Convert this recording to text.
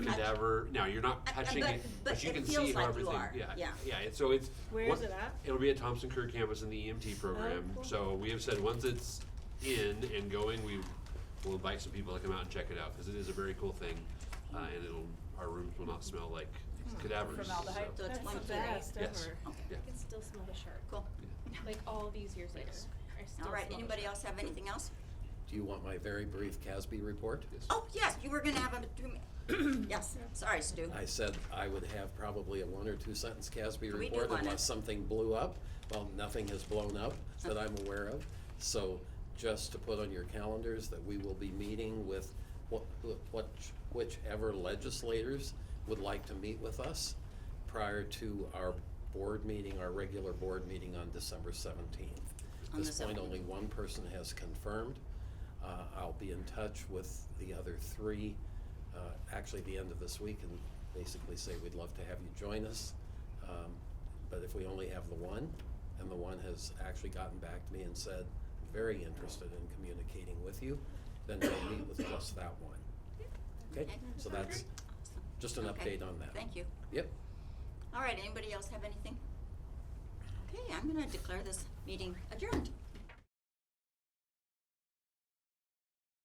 cadaver. Now you're not I- I- touching but- it, but but, you it can feels see how like you everything. are, Yeah, yeah. And so it's Where once- is it at? It'll be at Thompson Kerr campus in the Oh, EMT program. cool. So we have said once it's in and going, we will invite some people to come out and check it out because it is a very cool thing, uh, and it'll our rooms will not smell like Hmm. cadavers. formaldehyde? so- So it's That's one the theory. best Yes. ever. Okay, Yeah. can still smell the shark. cool. Like all these years later. Yes. I still All right, smell the anybody shark. else have anything else? Do you want my very brief Casby report? Yes. Oh, yes, you were gonna have a, do- yes, sorry, Stu. I said I would have probably a one or two sentence Casby do report one. unless something blew up. Well, nothing has blown up that I'm aware of. So just to put on your calendars that we will be meeting with what, what, whichever legislators would like to meet with us prior to our board meeting, our regular board meeting on December seventeenth. On At the this point, 17th. only one person has confirmed. Uh, I'll be in touch with the other three, uh, actually the end of this week and basically say, we'd love to have you join us. Um, But if we only have the one, and the one has actually gotten back to me and said, very interested in communicating with you, then we'll meet with just that one. Okay, so that's just an Okay, update on that. Thank you. Yep, All right, anybody else have anything? Okay, I'm gonna declare this meeting adjourned.